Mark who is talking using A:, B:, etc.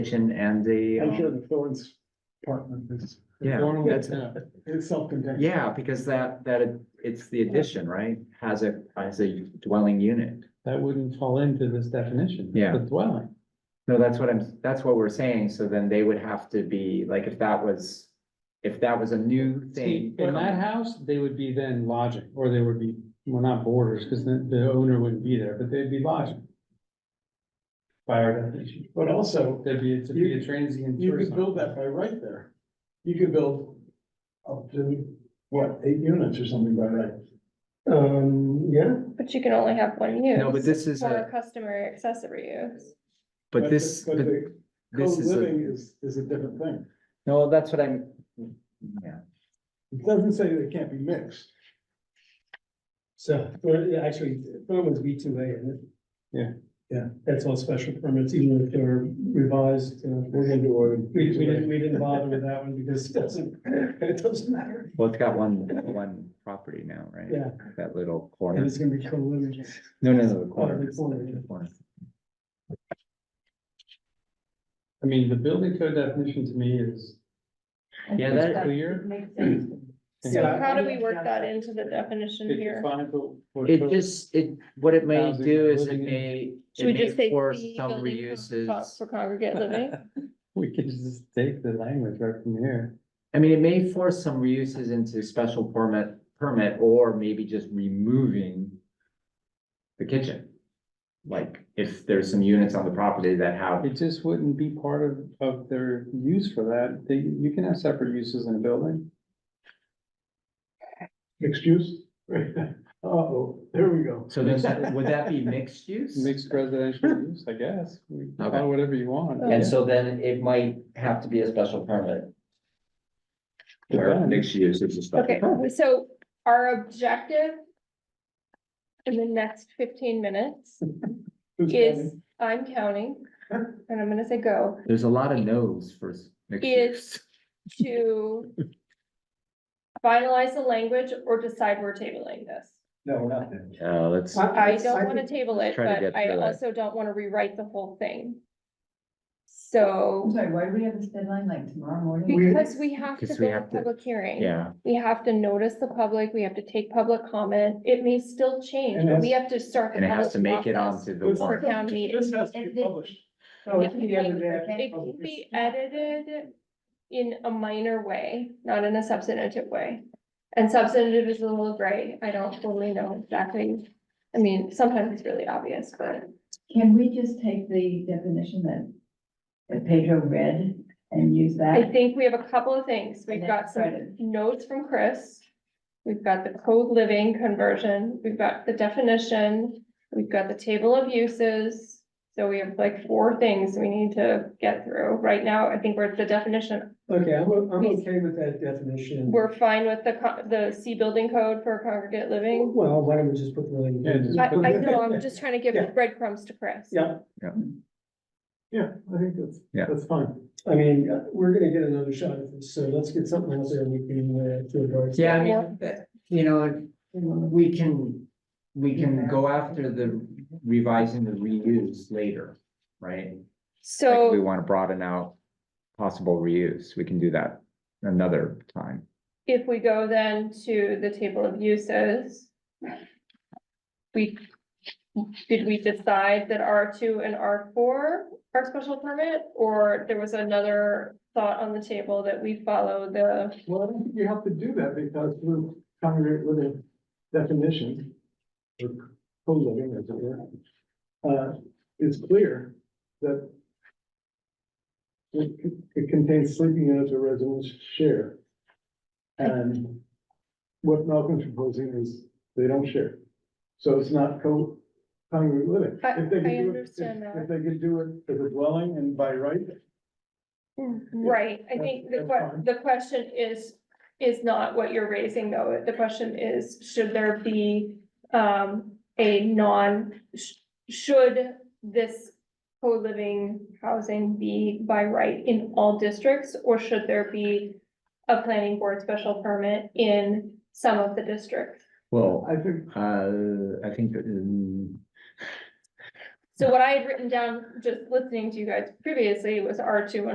A: station and the,
B: I'm sure
A: um,
B: the Thorns apartment is.
A: Yeah,
B: Thorne will-
A: that's-
B: yeah, It's self-contained.
A: yeah, because that, that, it- it's the addition, right? Has a, has a dwelling unit.
C: That wouldn't fall into this definition.
A: Yeah.
C: The dwelling.
A: No, that's what I'm, that's what we're saying. So then they would have to be, like, if that was, if that was a new
C: See,
A: thing.
C: in that house, they would be then lodging, or they would be, well, not boarders, because the, the owner wouldn't be there, but they'd be lodging. By our definition,
B: But also,
C: there'd be, it'd be a transient.
B: you
C: tourist
B: could build that by right there. You could build up to, what, eight units or something by right?
D: Um, yeah,
E: But you can only have one use.
A: No, but this is
E: For
A: a,
E: customer accessory use.
A: but this,
B: But
A: but
B: the
A: this is a,
B: co-living is, is a different thing.
A: no, that's what I'm, yeah.
B: It doesn't say they can't be mixed.
D: so, well, yeah, actually, Thurman's B two A, isn't it?
C: Yeah.
D: Yeah, that's all special permits, even if they're revised, uh,
B: We're gonna do a.
D: we, we didn't, we didn't bother with that one because it doesn't, it doesn't matter.
A: Well, it's got one, one property now, right?
D: Yeah,
A: That little
D: and
A: corner.
D: it's gonna be co-living.
A: No, no, no, the corner.
D: the corner.
A: The corner.
C: I mean, the building code definition to me is
A: Yeah,
C: is
A: that-
C: clear.
E: So
D: Yeah.
E: how do we work that into the definition
C: It
E: here?
C: defines what- what
A: It
C: code-
A: just, it, what it may
C: Housing,
A: do is it
C: living in-
A: may,
E: Should we
A: it
E: just
A: may
E: say?
A: force
E: fee
A: some
E: building for co-
A: reuses.
E: For congregate living?
C: We could just take the language right from here.
A: I mean, it may force some reuses into special permit, permit, or maybe just removing the kitchen. Like, if there's some units on the property that have,
C: It just wouldn't be part of, of their use for that. They, you can have separate uses in a building.
B: Mixed use? Uh-oh, there we go.
A: so there's, would that be mixed use?
C: Mixed residential use, I guess. We can
A: Okay.
C: Call it whatever you want.
A: And so then it might have to be a special permit. Where
C: Depends.
A: mixed use is a special
E: Okay,
A: permit.
E: so our objective in the next fifteen minutes
B: Who's
E: is,
B: counting?
E: I'm counting, and I'm gonna say go,
A: There's a lot of no's for s- mixed
E: Is-
A: use.
E: to finalize the language or decide we're tabling this.
B: No, we're not there.
A: Yeah, let's,
E: I don't wanna table it,
A: Try to
E: but
A: get
E: I
A: through it.
E: also don't wanna rewrite the whole thing. So.
F: I'm sorry, why do we have this deadline like tomorrow morning?
E: Because we have to
A: Because we
E: go to
A: have to-
E: public hearing.
A: yeah.
E: We have to notice the public, we have to take public comment, it may still change,
B: And
E: but we have to start. the
A: And it has to
E: public
A: make it
E: process
A: onto the
B: This-
E: For
A: warrant.
E: town meeting.
B: This has to be published.
F: So
E: It
F: it's
E: can be
F: the end of the day.
E: it can be edited in a minor way, not in a substantive way. And substantive is a little gray, I don't totally know exactly, I mean, sometimes it's really obvious, but.
F: Can we just take the definition that that Pedro read and use
E: I
F: that?
E: think we have a couple of things. We've
F: And
E: got
F: that's
E: some
F: right.
E: notes from Chris. We've got the code living conversion, we've got the definition, we've got the table of uses. So we have like four things we need to get through. Right now, I think we're at the definition.
D: Okay, I'm, o- I'm okay with that definition.
E: We're fine with the co- the C building code for congregate living.
D: Well, why don't we just put
C: Yeah, just
D: living?
E: I, I know, I'm just trying to give breadcrumbs to Chris.
D: Yeah,
B: Yeah, I think that's,
A: Yeah.
B: that's fine.
D: I mean, uh, we're gonna get another shot at this, so let's get something else that we can, uh, to address.
A: Yeah, I mean, that- you know, we can, we can go after the revising the reuse later, right? Like,
E: So.
A: we wanna broaden out possible reuse, we can do that another time.
E: If we go then to the table of uses. We, did we decide that R two and R four are special permit? Or there was another thought on the table that we follow the,
B: Well, I don't think you have to do that because we're congregate with a definition. or Co-living, as it were. Uh, it's clear that. It, it contains sleeping units or residents share. And what Malcolm's proposing is they don't share. So it's not co, congregate living.
E: I-
B: If they could
E: I
B: do it- if-
E: understand that.
B: If they could do it as a dwelling and by right,
E: right, I think
B: Mm-hmm.
E: the
B: That's
E: que-
B: fine.
E: the question is. Is not what you're raising though, the question is, should there be, um, a non, sh- should this. Co-living housing be by right in all districts, or should there be a planning board special permit in some of the districts?
A: Well,
B: I think um,
A: uh, I think, that, mm,
E: So what I had written down, just listening to you guys previously, was R two and